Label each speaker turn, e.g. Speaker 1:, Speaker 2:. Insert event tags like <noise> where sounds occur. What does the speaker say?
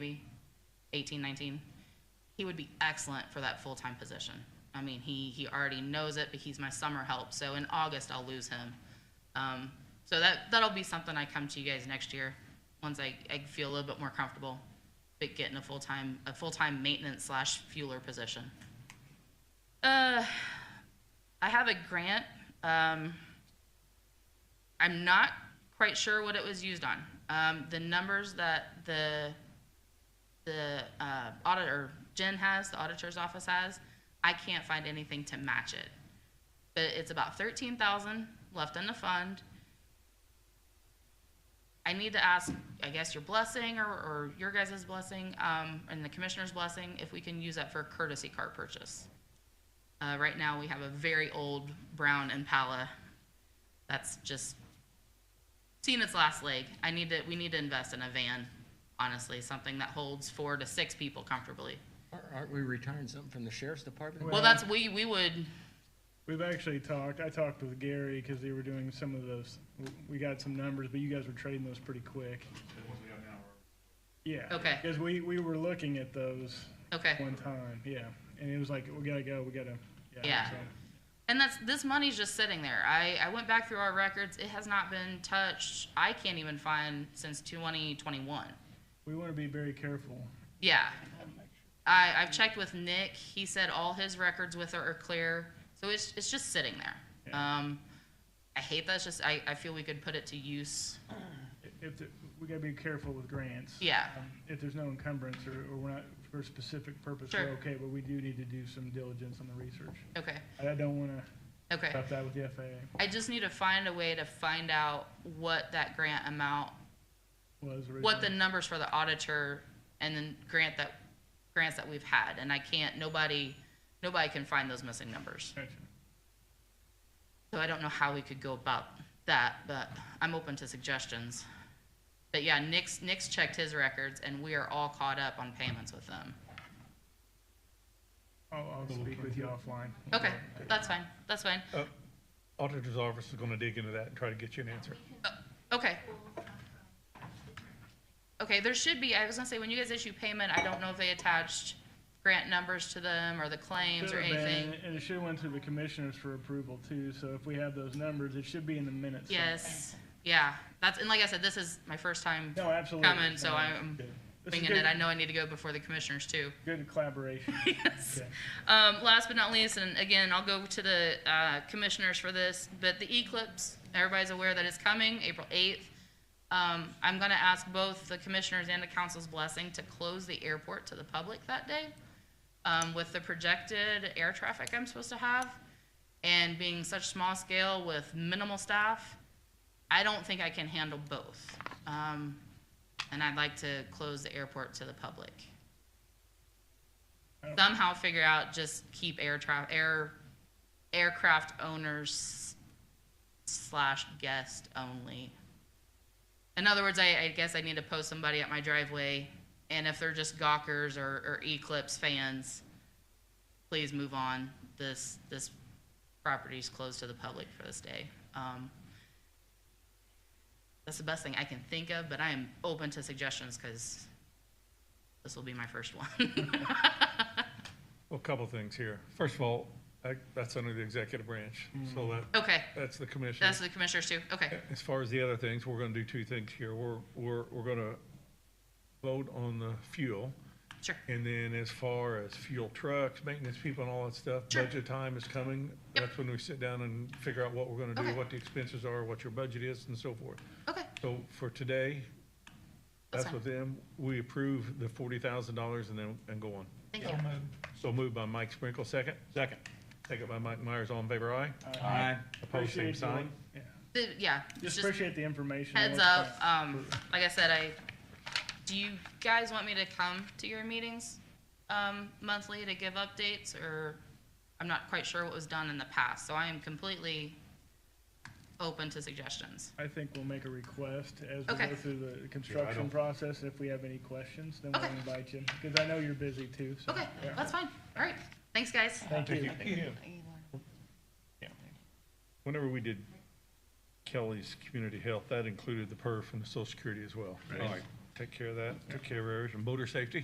Speaker 1: maybe 18, 19, he would be excellent for that full-time position. I mean, he, he already knows it, but he's my summer help, so in August, I'll lose him. Um, so that, that'll be something I come to you guys next year, once I, I feel a little bit more comfortable, but getting a full-time, a full-time maintenance slash fueler position. Uh, I have a grant, um, I'm not quite sure what it was used on. Um, the numbers that the the uh, auditor Jen has, the auditor's office has, I can't find anything to match it. But it's about thirteen thousand left in the fund. I need to ask, I guess, your blessing or, or your guys' blessing um, and the commissioner's blessing if we can use that for a courtesy car purchase. Uh, right now, we have a very old brown Impala that's just seen its last leg. I need to, we need to invest in a van, honestly, something that holds four to six people comfortably.
Speaker 2: Aren't- Aren't we retiring something from the sheriff's department?
Speaker 1: Well, that's, we, we would,
Speaker 3: We've actually talked, I talked with Gary because they were doing some of those, we got some numbers, but you guys were trading those pretty quick. Yeah.
Speaker 1: Okay.
Speaker 3: Because we, we were looking at those
Speaker 1: okay.
Speaker 3: one time, yeah. And it was like, we gotta go, we gotta, yeah.
Speaker 1: Yeah. And that's, this money's just sitting there. I, I went back through our records. It has not been touched. I can't even find since twenty twenty-one.
Speaker 3: We wanna be very careful.
Speaker 1: Yeah. I, I've checked with Nick. He said all his records with her are clear. So it's, it's just sitting there.
Speaker 3: Yeah.
Speaker 1: Um, I hate that. It's just, I, I feel we could put it to use.
Speaker 3: If, the- we gotta be careful with grants.
Speaker 1: Yeah.
Speaker 3: Um, If there's no encumbrance or, or we're not, for a specific purpose,
Speaker 1: Sure.
Speaker 3: we're okay, but we do need to do some diligence on the research.
Speaker 1: Okay,
Speaker 3: I I don't wanna
Speaker 1: okay.
Speaker 3: stop that with the FAA,
Speaker 1: I just need to find a way to find out what that grant amount,
Speaker 3: was originally.
Speaker 1: what the numbers for the auditor and then grant that, grants that we've had, and I can't, nobody, nobody can find those missing numbers.
Speaker 3: Gotcha.
Speaker 1: So I don't know how we could go about that, but I'm open to suggestions. But yeah, Nick's, Nick's checked his records and we are all caught up on payments with them.
Speaker 3: I'll, I'll speak with you offline.
Speaker 1: Okay, that's fine, that's fine.
Speaker 4: Uh, Auditor's office is gonna dig into that and try to get you an answer.
Speaker 1: Okay. Okay, there should be, I was gonna say, when you guys issue payment, I don't know if they attached grant numbers to them or the claims or
Speaker 3: Should've been,
Speaker 1: anything.
Speaker 3: And it should have went to the commissioners for approval too, so if we have those numbers, it should be in the minutes.
Speaker 1: Yes, yeah, that's, and like I said, this is my first time
Speaker 3: No, absolutely.
Speaker 1: coming, so
Speaker 3: No,
Speaker 1: I'm
Speaker 3: good. This is
Speaker 1: winging
Speaker 3: good-
Speaker 1: it. I know I need to go before the commissioners too.
Speaker 3: Good collaboration.
Speaker 1: Yes.
Speaker 3: Okay.
Speaker 1: Um, last but not least, and again, I'll go to the, uh, commissioners for this, but the eclipse, everybody's aware that it's coming, April eighth. Um, I'm gonna ask both the commissioners and the council's blessing to close the airport to the public that day, um, with the projected air traffic I'm supposed to have, and being such small scale with minimal staff, I don't think I can handle both. Um, and I'd like to close the airport to the public. Somehow figure out, just keep air tra- air, aircraft owners slash guest only. In other words, I, I guess I need to post somebody at my driveway, and if they're just gawkers or, or Eclipse fans, please move on. This, this property's closed to the public for this day. Um, that's the best thing I can think of, but I am open to suggestions because this will be my first one. <laughs>
Speaker 4: Well, a couple things here. First of all, I- that's under the executive branch, so that,
Speaker 1: okay,
Speaker 4: that's the commission.
Speaker 1: that's the commissioners too. Okay,
Speaker 4: As far as the other things, we're gonna do two things here. We're, we're, we're gonna vote on the fuel.
Speaker 1: sure.
Speaker 4: And then as far as fuel trucks, maintenance people and all that stuff,
Speaker 1: Sure.
Speaker 4: budget time is coming.
Speaker 1: Yep.
Speaker 4: That's when we sit down and figure out what we're gonna
Speaker 1: Okay.
Speaker 4: do, what the expenses are, what your budget is and so forth.
Speaker 1: Okay,
Speaker 4: So for today,
Speaker 1: That's
Speaker 4: that's
Speaker 1: fine.
Speaker 4: with them. We approve the forty thousand dollars and then, and go on.
Speaker 1: thank you.
Speaker 4: So moved by Mike Sprinkle, second? Second. Second by Mike Myers, all in favor, aye?
Speaker 2: Aye.
Speaker 4: Opposed, same
Speaker 3: Appreciate the-
Speaker 4: sign?
Speaker 3: yeah.
Speaker 1: The- yeah, it's
Speaker 3: Just
Speaker 1: just
Speaker 3: appreciate the information.
Speaker 1: heads
Speaker 3: Once
Speaker 1: up.
Speaker 3: again,
Speaker 1: Um, like I said, I do you guys want me to come to your meetings um, monthly to give updates, or I'm not quite sure what was done in the past, so I am completely open to suggestions.
Speaker 3: I think we'll make a request as we
Speaker 1: Okay.
Speaker 3: go through the construction
Speaker 4: don't-
Speaker 3: process. If we have any questions, then we'll
Speaker 1: Okay.
Speaker 3: invite you, because I know you're busy too, so.
Speaker 1: Okay,
Speaker 3: yeah.
Speaker 1: that's fine. All right, thanks, guys.
Speaker 3: Thank you.
Speaker 4: Whenever we did Kelly's community health, that included the perf and the social security as well. All right. take care of that, took care of everything, motor safety.